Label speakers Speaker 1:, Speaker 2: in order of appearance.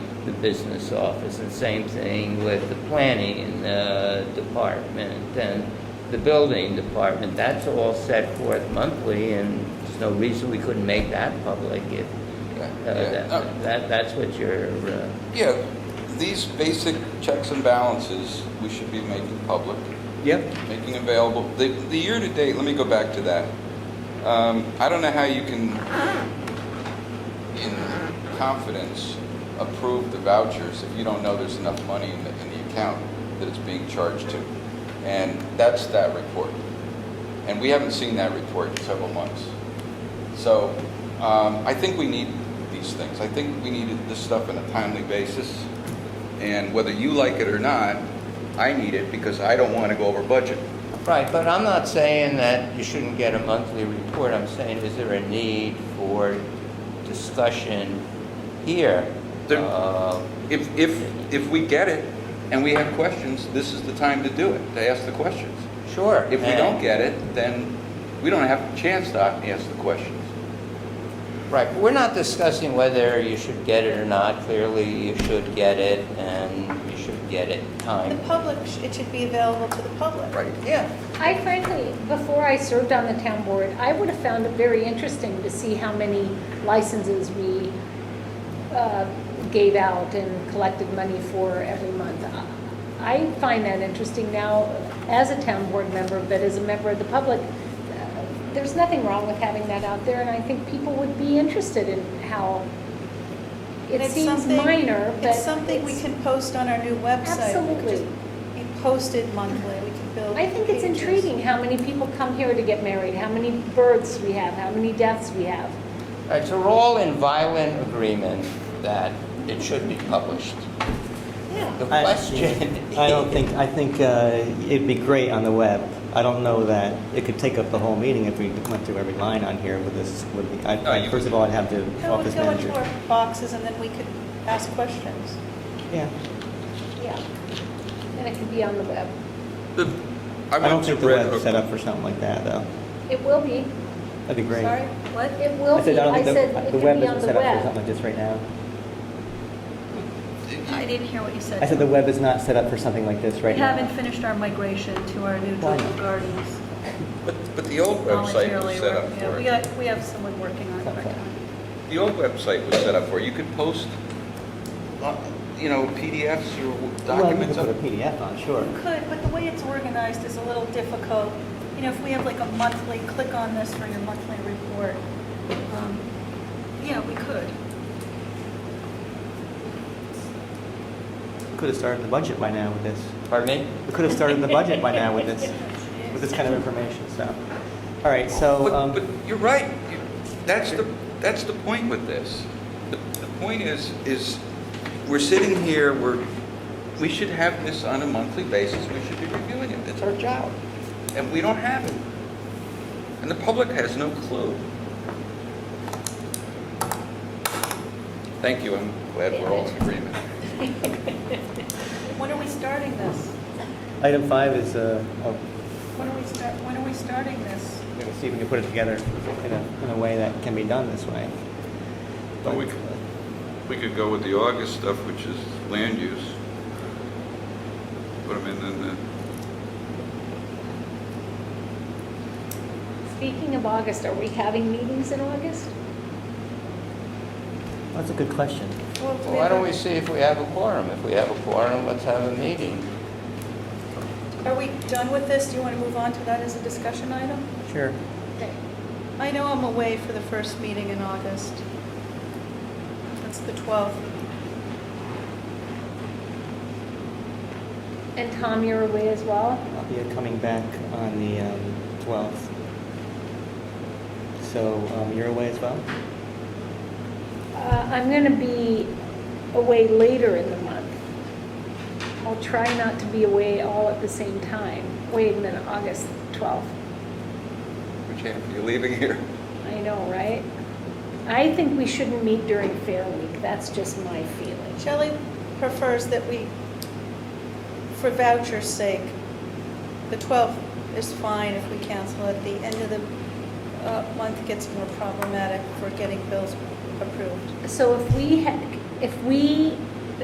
Speaker 1: the business office, and same thing with the planning uh, department and the building department. That's all set forth monthly, and there's no reason we couldn't make that public if
Speaker 2: Yeah,
Speaker 1: uh,
Speaker 2: yeah. Uh,
Speaker 1: that, that- that's what you're, uh,
Speaker 2: Yeah, these basic checks and balances, we should be making public,
Speaker 3: Yep.
Speaker 2: making available. The, the year-to-date, let me go back to that. Um, I don't know how you can, in confidence, approve the vouchers if you don't know there's enough money in the, in the account that it's being charged to. And that's that report. And we haven't seen that report in several months. So um, I think we need these things. I think we needed this stuff on a timely basis. And whether you like it or not, I need it because I don't want to go over budget.
Speaker 1: Right, but I'm not saying that you shouldn't get a monthly report. I'm saying, is there a need for discussion here?
Speaker 2: There-
Speaker 1: Uh,
Speaker 2: If, if, if we get it and we have questions, this is the time to do it, to ask the questions.
Speaker 1: Sure.
Speaker 2: If we don't get it, then we don't have a chance to ask the questions.
Speaker 1: Right, but we're not discussing whether you should get it or not. Clearly, you should get it, and you should get it
Speaker 4: The
Speaker 1: time.
Speaker 4: public, sh- it should be available to the public.
Speaker 2: Right.
Speaker 1: Yeah.
Speaker 5: I frankly, before I served on the town board, I would have found it very interesting to see how many licenses we uh, gave out and collected money for every month. I find that interesting now as a town board member, but as a member of the public, uh, there's nothing wrong with having that out there, and I think people would be interested in how,
Speaker 4: And
Speaker 5: it
Speaker 4: it's
Speaker 5: seems
Speaker 4: something-
Speaker 5: minor, but
Speaker 4: It's something we
Speaker 5: it's-
Speaker 4: can post on our new website. We could just
Speaker 5: Absolutely.
Speaker 4: Be posted monthly, we can build
Speaker 5: I think it's
Speaker 4: pages.
Speaker 5: intriguing how many people come here to get married, how many births we have, how many deaths we have.
Speaker 1: All right, so we're all in violent agreement that it should be published. The
Speaker 4: Yeah,
Speaker 3: I-
Speaker 1: question.
Speaker 3: I don't think, I think uh, it'd be great on the web. I don't know that, it could take up the whole meeting if we went through every line on here with this, with the, I-
Speaker 2: No,
Speaker 3: I-
Speaker 2: you-
Speaker 3: first of all, I'd have the
Speaker 4: no, we
Speaker 3: office
Speaker 4: go into
Speaker 3: manager.
Speaker 4: our boxes and then we could ask questions.
Speaker 3: Yeah,
Speaker 5: Yeah. And it could be on the web.
Speaker 2: The- I
Speaker 3: I don't
Speaker 2: went to
Speaker 3: think the
Speaker 2: Red
Speaker 3: web's
Speaker 2: Hook.
Speaker 3: set up for something like that, though.
Speaker 5: It will be.
Speaker 3: That'd be great.
Speaker 4: Sorry?
Speaker 5: What? It will
Speaker 3: I said,
Speaker 5: be.
Speaker 3: I don't
Speaker 5: I
Speaker 3: think the-
Speaker 5: said it
Speaker 3: the
Speaker 5: could
Speaker 3: web
Speaker 5: be on
Speaker 3: isn't
Speaker 5: the
Speaker 3: set up for something
Speaker 5: web.
Speaker 3: like this right now.
Speaker 6: I didn't hear what you said.
Speaker 3: I said the web is not set up for something like this
Speaker 6: We
Speaker 3: right now.
Speaker 6: haven't finished our migration to our new
Speaker 3: Why?
Speaker 6: Doodle Gardens
Speaker 2: But, but the old website
Speaker 6: voluntarily.
Speaker 2: was set up
Speaker 6: work- yeah,
Speaker 2: for
Speaker 6: We
Speaker 2: it.
Speaker 6: got, we have someone working on it right now.
Speaker 2: The old website was set up for it. You could post, uh, you know, PDFs or
Speaker 3: Well, you
Speaker 2: documents.
Speaker 3: could put a
Speaker 2: up.
Speaker 3: PDF on, sure.
Speaker 4: We could, but the way it's organized is a little difficult. You know, if we have like a monthly, click on this for your monthly report.
Speaker 6: Um, Yeah, we could.
Speaker 3: Could have started the budget by now with this.
Speaker 1: Pardon me?
Speaker 3: We could have started the budget by now with this, with this kind of information, so. All right, so,
Speaker 2: But, but
Speaker 3: um,
Speaker 2: you're right. You- That's the, that's the point with this. The, the point is, is we're sitting here, we're, we should have this on a monthly basis. We should be reviewing it. It's our job. And we don't have it. And the public has no clue. Thank you. I'm glad we're all in agreement.
Speaker 4: When are we starting this?
Speaker 3: item five is, uh, oh,
Speaker 4: When are we start, when are we starting this?
Speaker 3: we're gonna see if we can put it together in a, in a way that can be done this way.
Speaker 2: Well, we could- We could go with the August stuff, which is land use. Put them in, in the
Speaker 5: Speaking of August, are we having meetings in August?
Speaker 3: That's a good question.
Speaker 4: Well, if
Speaker 1: Well, why don't we see if we have a quorum? If we have a quorum, let's have a meeting.
Speaker 4: Are we done with this? Do you want to move on to that as a discussion item?
Speaker 3: Sure.
Speaker 5: Okay.
Speaker 4: I know I'm away for the first meeting in August. That's the 12th.
Speaker 5: And Tom, you're away as well?
Speaker 3: I'll be coming back on the, um, twelfth. So, um, you're away as well?
Speaker 5: Uh, I'm going to be away later in the month. I'll try not to be away all at the same time. Wait a minute, August 12th.
Speaker 2: Which half are you leaving here?
Speaker 5: I know, right? I think we shouldn't meet during Fair Week. That's just my feeling.
Speaker 4: Shelley prefers that we, for voucher's sake, the 12th is fine if we cancel it. The end of the uh, month gets more problematic for getting bills approved.
Speaker 5: So if we, had- if we